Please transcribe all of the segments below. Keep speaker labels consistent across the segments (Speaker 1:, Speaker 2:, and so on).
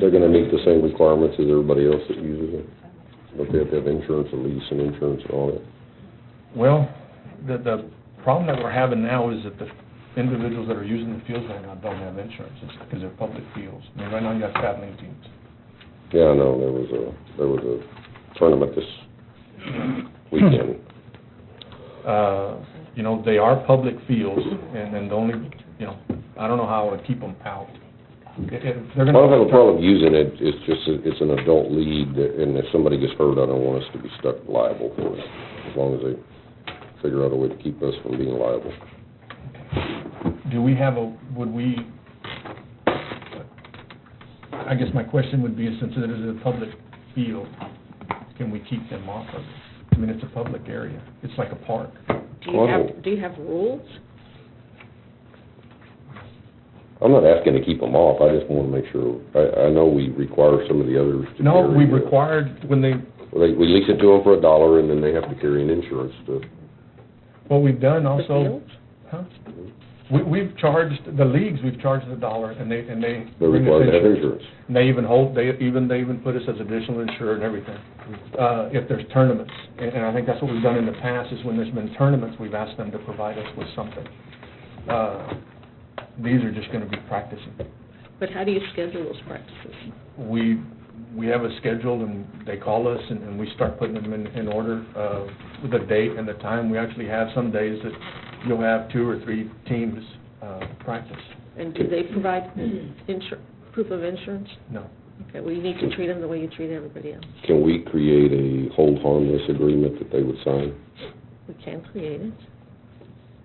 Speaker 1: They're gonna meet the same requirements as everybody else that uses it, but they have to have insurance, a lease and insurance and all that.
Speaker 2: Well, the, the problem that we're having now is that the individuals that are using the fields right now don't have insurance, it's because they're public fields. I mean, right now you got traveling teams.
Speaker 1: Yeah, I know, there was a, there was a tournament this weekend.
Speaker 2: Hmm. Uh, you know, they are public fields, and then the only, you know, I don't know how to keep them out. If, if they're
Speaker 1: I
Speaker 2: gonna.
Speaker 1: don't have a problem using it, it's just, a- it's an adult lead, that- and if somebody gets hurt, I don't want us to be stuck liable for it, as long as they figure out a way to keep us from being liable.
Speaker 2: Do we have a, would we, I guess my question would be, since it is a public field, can we keep them off of it? I mean, it's a public area, it's like a park.
Speaker 3: Do you have, do you have rules?
Speaker 1: I'm not asking to keep them off, I just wanna make sure, I, I know we require some of the others to
Speaker 2: No, we
Speaker 1: carry the-
Speaker 2: required, when they,
Speaker 1: Well, They, we lease it to them for a dollar, and then they have to carry an insurance to,
Speaker 2: what we've done
Speaker 3: The
Speaker 2: also,
Speaker 3: fields?
Speaker 2: huh? We, we've charged, the leagues, we've charged a dollar, and they, and they.
Speaker 1: they're required to have insurance.
Speaker 2: And they even hold, they even, they even put us as additional insurer and everything, uh, if there's tournaments. And, and I think that's what we've done in the past, is when there's been tournaments, we've asked them to provide us with something. Uh, These are just gonna be practicing.
Speaker 3: But how do you schedule those practices?
Speaker 2: We, we have a schedule, and they call us, and, and we start putting them in, in order, uh, with the date and the time. We actually have some days that you'll have two or three teams, uh, practice.
Speaker 3: And do they provide insur, proof of insurance?
Speaker 2: No.
Speaker 3: Okay, well, you need to treat them the way you treat everybody else.
Speaker 1: Can we create a hold harmless agreement that they would sign?
Speaker 3: We can create it.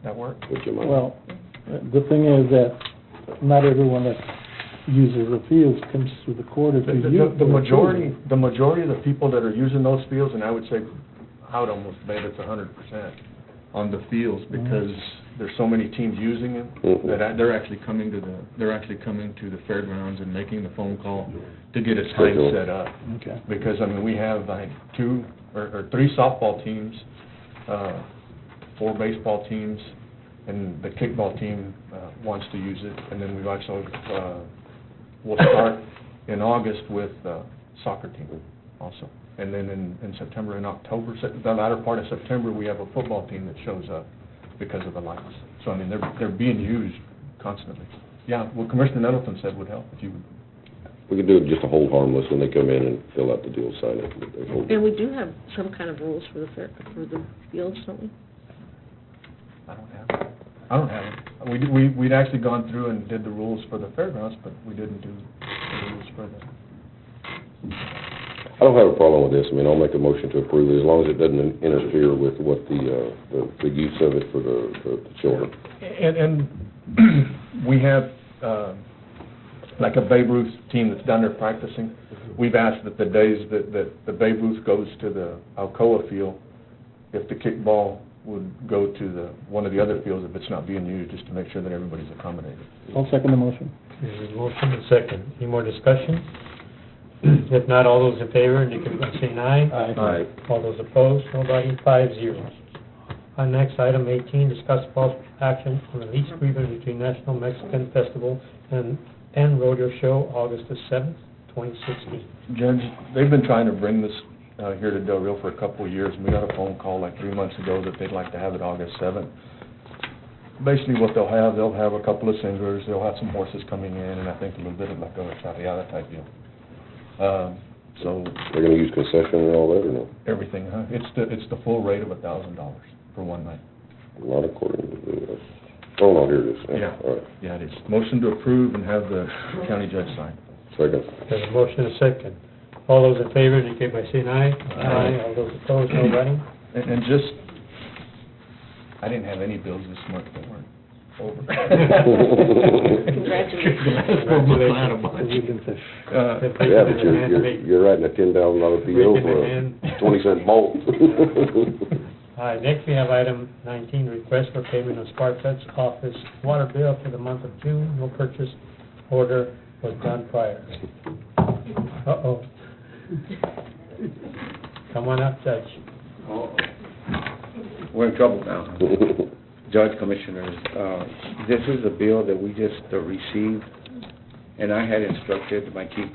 Speaker 2: That work?
Speaker 1: Would you mind?
Speaker 4: Well, the thing is that not everyone that uses the fields comes through the court if
Speaker 2: The-
Speaker 4: they use.
Speaker 2: The, the
Speaker 4: it.
Speaker 2: majority, the majority of the people that are using those fields, and I would say, I would almost bet it's a hundred percent on the fields, because there's so many teams using them,
Speaker 1: Mhm.
Speaker 2: that I- they're actually coming to the, they're actually coming to the fairgrounds and making the phone call to get a time
Speaker 1: Schedule.
Speaker 2: set up.
Speaker 4: Okay.
Speaker 2: Because, I mean, we have like two, or, or three softball teams, uh, four baseball teams, and the kickball team, uh, wants to use it. And then we've also, uh, we'll start in August with, uh, soccer team also. And then in, in September and October, Sep- the latter part of September, we have a football team that shows up because of the lights. So, I mean, they're, they're being used constantly. Yeah, what Commissioner Nettleton said would help if you would
Speaker 1: We could do it just a hold harmless when they come in and fill out the deal, sign it, that they hold
Speaker 3: And
Speaker 1: it.
Speaker 3: we do have some kind of rules for the fair, for the fields, don't we?
Speaker 2: I don't have, it. I don't have it. We, we, we'd actually gone through and did the rules for the fairgrounds, but we didn't do the rules for the,
Speaker 1: I don't have a problem with this, I mean, I'll make a motion to approve it, as long as it doesn't interfere with what the, uh, the, the use of it for the, the- the children.
Speaker 2: and, and we have, uh, like a Babe Ruth team that's down there practicing. We've asked that the days that, that the Babe Ruth goes to the Alcoa field, if the kickball would go to the, one of the other fields if it's not being used, just to make sure that everybody's accommodated.
Speaker 4: I'll second the motion.
Speaker 5: There's a motion and second. Any more discussion? If not, all those in favor indicate by saying aye.
Speaker 1: Aye.
Speaker 5: All those opposed, nobody, five zero. Our next item eighteen, discuss possible action on the lease agreement between National Mexican Festival and, and Rodeo Show, August the seventh, twenty sixteen.
Speaker 2: Judge, they've been trying to bring this uh, here to Del Rio for a couple of years, and we got a phone call like three months ago that they'd like to have it August seventh. Basically, what they'll have, they'll have a couple of singers, they'll have some horses coming in, and I think a little bit of like a charreada type deal. Um, So,
Speaker 1: They're gonna use concession and all that, or no?
Speaker 2: everything, huh? It's the, it's the full rate of a thousand dollars for one night.
Speaker 1: Not according to the, oh, no, here it is.
Speaker 2: Yeah.
Speaker 1: All right,
Speaker 2: Yeah, it is. Motion to approve and have the county judge sign.
Speaker 1: second.
Speaker 5: There's a motion and second. All those in favor indicate by saying aye.
Speaker 2: Aye.
Speaker 5: All those opposed, nobody.
Speaker 2: And, and just, I didn't have any bills this month that weren't over.
Speaker 3: Congratulations.
Speaker 2: Uh,
Speaker 1: Yeah,
Speaker 5: If they could
Speaker 1: but you're,
Speaker 5: have
Speaker 1: you're,
Speaker 5: made-
Speaker 1: you're writing a ten thousand dollar PO
Speaker 5: Breaking
Speaker 1: for
Speaker 5: it in.
Speaker 1: a twenty cent bolt.
Speaker 5: All right, next we have item nineteen, request for payment of Sparklet's office water bill for the month of June. No purchase order was done prior. Uh-oh. Come on up, Judge.
Speaker 6: We're in trouble now. Judge Commissioners, uh, this is a bill that we just uh, received, and I had instructed my chief